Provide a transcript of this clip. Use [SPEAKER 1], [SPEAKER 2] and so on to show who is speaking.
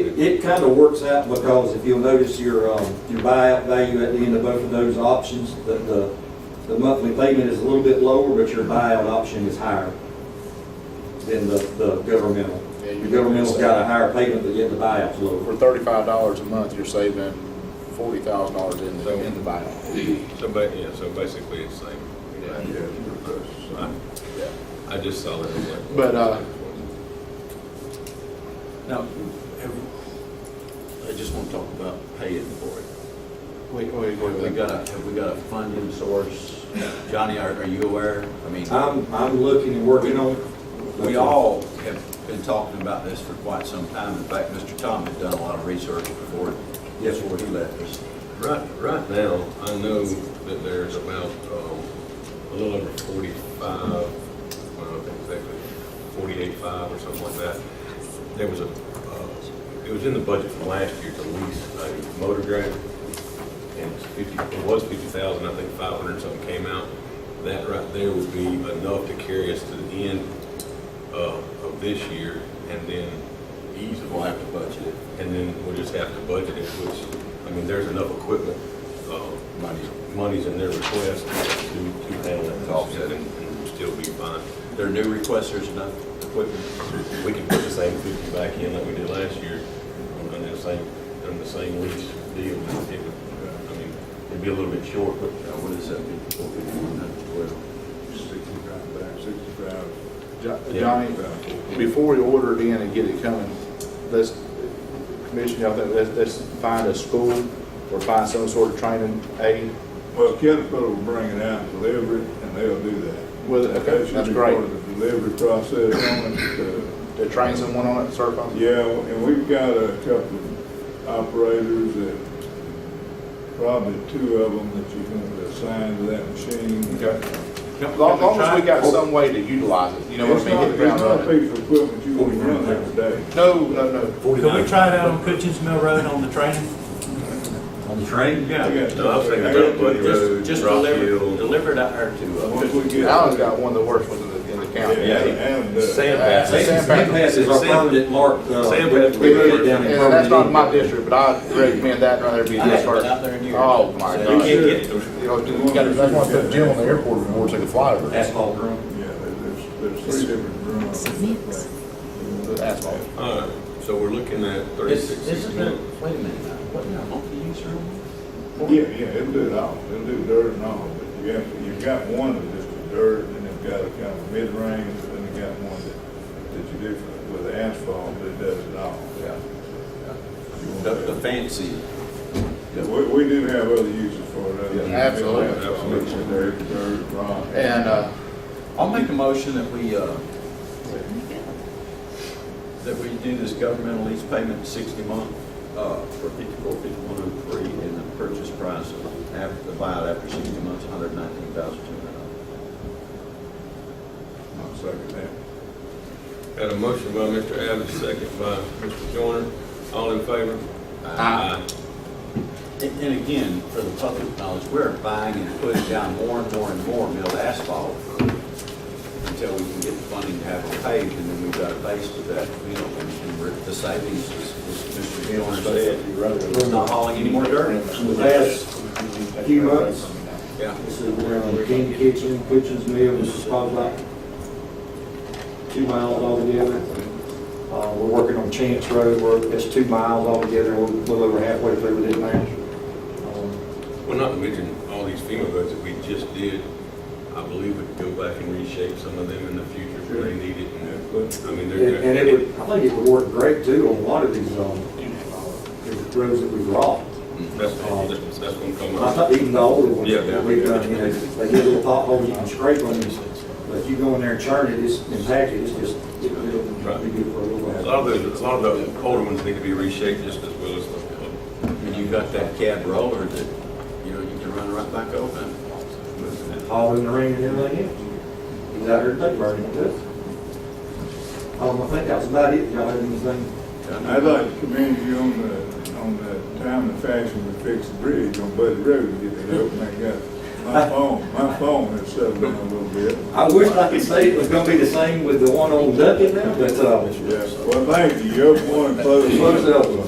[SPEAKER 1] it kind of works out because if you'll notice your, um, your buyout value at the end of both of those options, the, the, the monthly payment is a little bit lower, but your buyout option is higher than the, the governmental.
[SPEAKER 2] Yeah, you-
[SPEAKER 1] The governmental's got a higher payment, but yet the buyout's
[SPEAKER 2] For
[SPEAKER 1] lower.
[SPEAKER 2] thirty-five dollars a month, you're saving forty thousand dollars in
[SPEAKER 3] So-
[SPEAKER 2] the, in the buyout.
[SPEAKER 3] So, ba- yeah, so basically it's same. Yeah. I-
[SPEAKER 2] Yeah.
[SPEAKER 3] I just saw that. I was like,
[SPEAKER 2] But, uh,
[SPEAKER 4] Now,
[SPEAKER 5] I just want to talk about paying for it.
[SPEAKER 2] Wait, wait,
[SPEAKER 5] Have we got a, have we got a funding source? Johnny, are, are you aware? I mean,
[SPEAKER 1] I'm, I'm looking and working on.
[SPEAKER 5] we all have been talking about this for quite some time. In fact, Mr. Tom had done a lot of research before,
[SPEAKER 1] Yes,
[SPEAKER 5] before he left us.
[SPEAKER 3] Right, right now, I know that there's about, um, a little over forty-five, I don't know exactly, forty-eight five or something like that. There was a, uh, it was in the budget from last year to lease a motor grade. And it's fifty, it was fifty thousand, I think five hundred something came out. That right there would be enough to carry us to the end uh, of, of this year and then
[SPEAKER 5] Easy, we'll have to budget it.
[SPEAKER 3] and then we'll just have to budget it, which, I mean, there's enough equipment, uh,
[SPEAKER 5] Money,
[SPEAKER 3] monies in their request to, to handle that
[SPEAKER 5] To offset
[SPEAKER 3] offset
[SPEAKER 5] it.
[SPEAKER 3] and and still be fine.
[SPEAKER 5] their new request, there's enough equipment. Uh,
[SPEAKER 3] We can put the same fifty back in like we did last year, on the same, on the same lease deal. It would, I mean, it'd be a little bit short, but
[SPEAKER 5] Now, what is that, four fifty-one, twelve?
[SPEAKER 6] Sixty-five back, sixty-five.
[SPEAKER 3] Yeah.
[SPEAKER 2] uh, Johnny,
[SPEAKER 6] back.
[SPEAKER 2] before we order it in and get it coming, let's, Commissioner, I think, let's, let's find a school or find some sort of training aid.
[SPEAKER 6] Well, Caterpillar will bring it out and deliver it, and they'll do that.
[SPEAKER 2] Well, okay,
[SPEAKER 6] That should
[SPEAKER 2] that's
[SPEAKER 6] be
[SPEAKER 2] great.
[SPEAKER 6] part of the delivery process on it. uh,
[SPEAKER 2] to train someone on it, certify them.
[SPEAKER 6] Yeah, and we've got a couple of operators that, probably two of them that you're going to assign to that machine.
[SPEAKER 2] As long, long as we got some way to utilize it, you know what I mean, hit the ground
[SPEAKER 6] It's not a
[SPEAKER 2] running.
[SPEAKER 6] piece of equipment you want to run every day.
[SPEAKER 2] No, no, no.
[SPEAKER 7] Could we try it out on Cutchins Mill Road on the train?
[SPEAKER 1] On the train?
[SPEAKER 6] Yeah.
[SPEAKER 3] No, I was thinking about Buddy Road,
[SPEAKER 5] Just
[SPEAKER 3] Rock
[SPEAKER 5] deliver,
[SPEAKER 3] Hill.
[SPEAKER 5] deliver it out there to, uh,
[SPEAKER 6] Once we get.
[SPEAKER 2] Allen's got one of the worst ones in the, in the county.
[SPEAKER 6] Yeah, and, uh,
[SPEAKER 3] Sandbags.
[SPEAKER 2] Sand-
[SPEAKER 1] Sandpass is our
[SPEAKER 3] Sand-
[SPEAKER 1] permanent mark, uh,
[SPEAKER 3] Sand-
[SPEAKER 1] we- we put it down in
[SPEAKER 2] And that's not my
[SPEAKER 1] permanent.
[SPEAKER 2] district, but I recommend that right there be
[SPEAKER 5] I haven't
[SPEAKER 2] this
[SPEAKER 5] been
[SPEAKER 2] first.
[SPEAKER 5] out there in years.
[SPEAKER 2] Oh, my
[SPEAKER 5] You
[SPEAKER 3] You
[SPEAKER 2] God.
[SPEAKER 3] can't get it.
[SPEAKER 2] You know, you gotta, that's why I put Jim on the airport before it's like a flyover.
[SPEAKER 1] Asphalt room.
[SPEAKER 6] Yeah, there's, there's three different rooms.
[SPEAKER 2] The asphalt.
[SPEAKER 3] All right, so we're looking at
[SPEAKER 5] This,
[SPEAKER 3] thirty-six,
[SPEAKER 5] this has
[SPEAKER 3] sixty
[SPEAKER 5] been,
[SPEAKER 3] one.
[SPEAKER 5] wait a minute, now, wasn't there a multi-use room?
[SPEAKER 6] Oh, Yeah, yeah, it'll do it all, it'll do dirt and all, but you have, to- you've got one that's just for dirt, and it's got a kind of mid-range, and then you got one that, that you do for- with asphalt, that does it all.
[SPEAKER 5] Yeah. The, the fancy.
[SPEAKER 6] We, we do have other uses for it. other than
[SPEAKER 2] Yeah, absolutely.
[SPEAKER 6] Absolutely, dirt, dirt, rock.
[SPEAKER 2] And, uh,
[SPEAKER 5] I'll make a motion that we, uh, that we do this governmental lease payment sixty month, uh, for fifty-four, fifty-one, and three, and the purchase price after, the buyout after sixty months, one hundred nineteen thousand two hundred dollars.
[SPEAKER 6] I'll second that.
[SPEAKER 3] Got a motion by Mr. Abbott, second by Mr. Joyner. All in favor?
[SPEAKER 2] Aye.
[SPEAKER 5] And, and again, for the public knowledge, we're buying and putting down more and more and more milled asphalt until we can get the funding to have it paved, and then we've got a base to that, you know, and and we're, the savings, as, as Mr. Joyner said, we're not hauling any more dirt.
[SPEAKER 1] The last few months,
[SPEAKER 5] Yeah.
[SPEAKER 1] This is around King Kitchen, Kitchen's Mill, this is probably about two miles altogether. Uh, we're working on Chance Road, where it's two miles altogether, we're a little over halfway through with it now. Um,
[SPEAKER 3] Well, not to mention all these FEMA roads that we just did, I believe we could go back and reshape some of them in the future if they need it. and- I
[SPEAKER 1] And and
[SPEAKER 3] mean,
[SPEAKER 1] it
[SPEAKER 3] they're,
[SPEAKER 1] would, I think it would work great too on a lot of these, um, uh, roads that we've rocked.
[SPEAKER 3] Mm, that's, that's that's what I'm talking
[SPEAKER 1] I
[SPEAKER 3] about.
[SPEAKER 1] thought even the older ones,
[SPEAKER 3] Yeah, yeah.
[SPEAKER 1] we've done, you know, they get little potholes, you can scrape on them, but if you go in there and churn it, it's impacted, it's just, it'll, it'll be good for a little
[SPEAKER 3] A
[SPEAKER 1] while.
[SPEAKER 3] lot of those, a lot of those older ones need to be reshaped just as well as the,
[SPEAKER 5] And you've got that cab roller that, you know, you can run right back over.
[SPEAKER 1] All in the ring and everything else. He's out here today burning it up. Um, I think that's about it, y'all have anything?
[SPEAKER 6] I'd like to commend you on the, on the time and fashion we fixed the bridge on Buddy Road, to get it open, I got, my phone, my phone has settled down a little bit.
[SPEAKER 1] I wish I could say it was gonna be the same with the one on Duckett now, but, uh,
[SPEAKER 6] Yeah, well, thank you, you're one
[SPEAKER 1] close
[SPEAKER 6] close.
[SPEAKER 1] the other one.